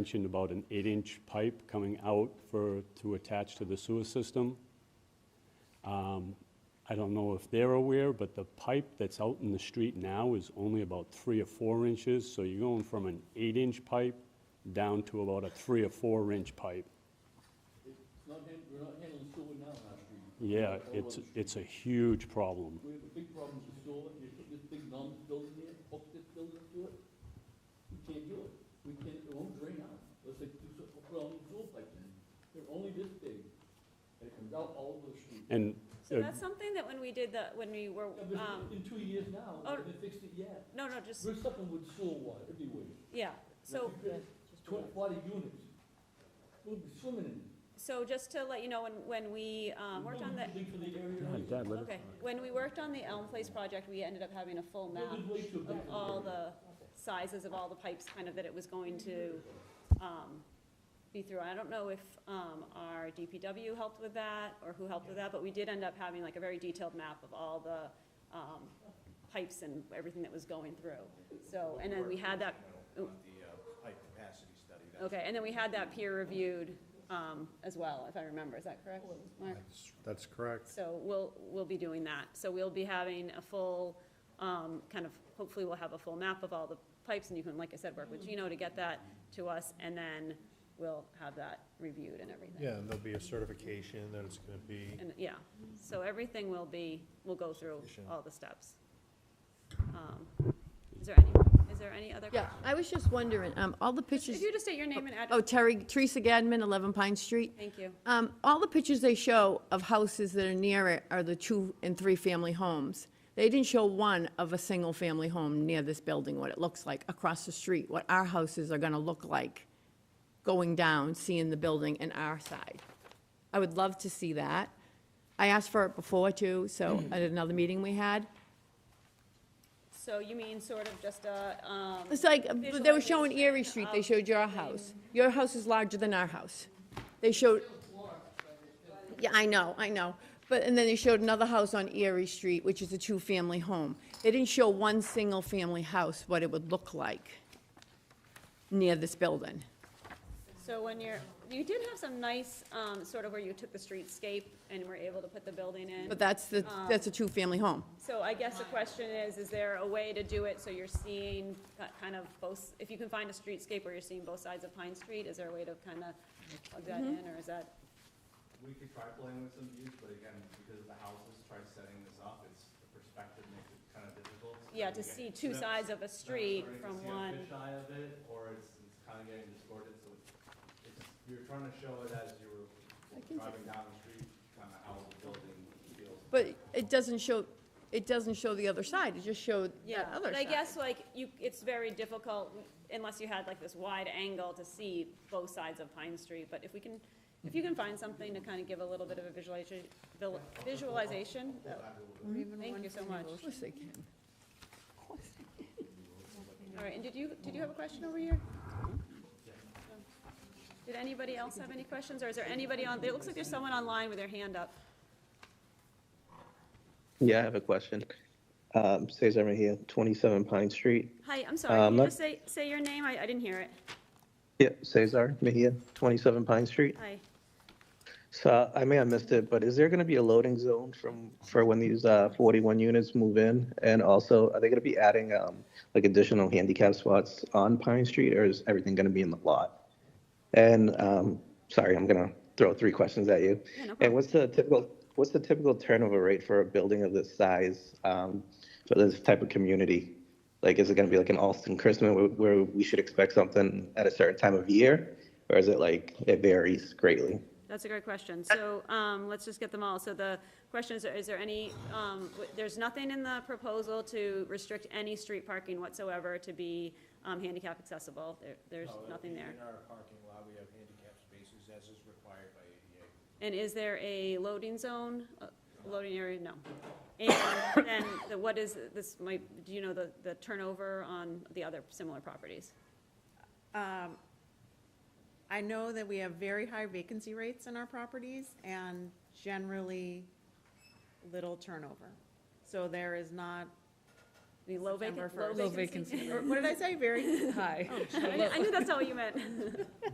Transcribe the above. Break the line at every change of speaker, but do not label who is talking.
mentioned about an eight-inch pipe coming out for, to attach to the sewer system. Um, I don't know if they're aware, but the pipe that's out in the street now is only about three or four inches, so you're going from an eight-inch pipe down to about a three or four-inch pipe.
It's not hand, we're not handling sewer now in our street.
Yeah,
All
it's,
over the street.
it's a huge problem.
We have a big problem with sewer, you put this big numb building here, hook this building to it, we can't do it. We can't, it won't drain out, let's say, do some, put all these sewer pipes in, they're only this big, and it comes out all over the street.
And
So
Uh,
that's something that when we did the, when we were,
Yeah, but
um,
in two years now,
oh.
they haven't fixed it yet.
no, no, just,
We're suffering with sewer water everywhere.
yeah. So,
Like, you got Twenty, forty units, we'll be swimming in it.
so just to let you know, when, when we, um, worked on the,
Nothing for the area.
okay, when we worked on the Elm Place project, we ended up having a full map
There's way too big
of
for the
all
area.
the sizes of all the pipes, kind of that it was going to, um, be through. I don't know if, um, our DPW helped with that, or who helped with that, but we did end up having like a very detailed map of all the, um, pipes and everything that was going through. So, and then we had that oh,
The uh, pipe capacity study. that's-
Okay, and then we had that peer reviewed um, as well, if I remember, is that correct, Mark?
That's correct.
So we'll, we'll be doing that. So we'll be having a full, um, kind of, hopefully we'll have a full map of all the pipes, and you can, like I said, work with Gino to get that to us, and then we'll have that reviewed and everything.
Yeah, and there'll be a certification that it's gonna be.
And, yeah, so everything will be, we'll go through all the steps. Um, Is there any, is there any other?
Yeah, I was just wondering, um, all the
Just-
pictures,
If you just state your name and
oh,
address,
Terry, Teresa Gadman, 11 Pine Street.
thank you.
Um, all the pictures they show of houses that are near it are the two and three-family homes. They didn't show one of a single-family home near this building, what it looks like across the street, what our houses are gonna look like going down, seeing the building and our side. I would love to see that. I asked for it before too, so
Mm-hmm.
at another meeting we had.
So you mean sort of just a, um,
It's like,
Visual
they were showing
depiction
Erie Street, they
of
showed your house. Your house is larger than our house. They showed, yeah, I know, I know. But, and then they showed another house on Erie Street, which is a two-family home. They didn't show one single-family house, what it would look like near this building.
So when you're, you did have some nice, um, sort of where you took the streetscape and were able to put the building in.
But that's the,
Um,
that's a two-family home.
So I guess the question is, is there a way to do it so you're seeing ki- kind of both, if you can find a streetscape where you're seeing both sides of Pine Street, is there a way to kind of plug that
Mm-hmm.
in, or is that?
We could try playing with some views, but again, because the houses tried setting this up, it's, the perspective makes it kind of difficult. so
Yeah,
you
to
get-
see two
no,
sides of a street
no,
from
Or you
one,
can see a fisheye of it, or it's, it's kind of getting distorted, so it's- it's, you're trying to show it as you were driving down the street, kind of how the building feels.
But it doesn't show, it doesn't show the other side, it just showed
yeah.
that
Um, But
other side.
I guess like you, it's very difficult unless you had like this wide angle to see both sides of Pine Street. But if we can, if you can find something to kind of give a little bit of a visualization, visualization, that Thank you so much.
Of course they can.
All right, and did you, did you have a question over here? Did anybody else have any questions, or is there anybody on, it looks like there's someone online with their hand up.
Yeah, I have a question. Um, Cesar Mejia, 27 Pine Street.
Hi, I'm sorry,
Uh,
can you
let-
just say, say your name? I, I didn't hear it.
Yeah, Cesar Mejia, 27 Pine Street.
Hi.
So I may have missed it, but is there going to be a loading zone from, for when these uh, 41 units move in? And also, are they going to be adding um, like additional handicap spots on Pine Street or is everything going to be in the lot? And um, sorry, I'm going to throw three questions at you.
Yeah, no problem.
And what's the typical, what's the typical turnover rate for a building of this size, um, for this type of community? Like, is it going to be like an Alston Christmas where- where we should expect something at a certain time of year? Or is it like, it varies greatly?
That's a great question. So, um, let's just get them all. So the question is, is there any, um, w- there's nothing in the proposal to restrict any street parking whatsoever to be, um, handicap accessible. There, there's nothing there.
In our parking lot, we have handicap spaces as is required by ADA.
And is there a loading zone, uh, loading area? No. And then, the- what is, this might, do you know the, the turnover on the other similar properties?
I know that we have very high vacancy rates in our properties and generally little turnover. So there is not,
the low vacancy.
September first. Low vacancy.
Oh,
Or What did I say? Very
Hi.
I knew- I knew that's not what you meant.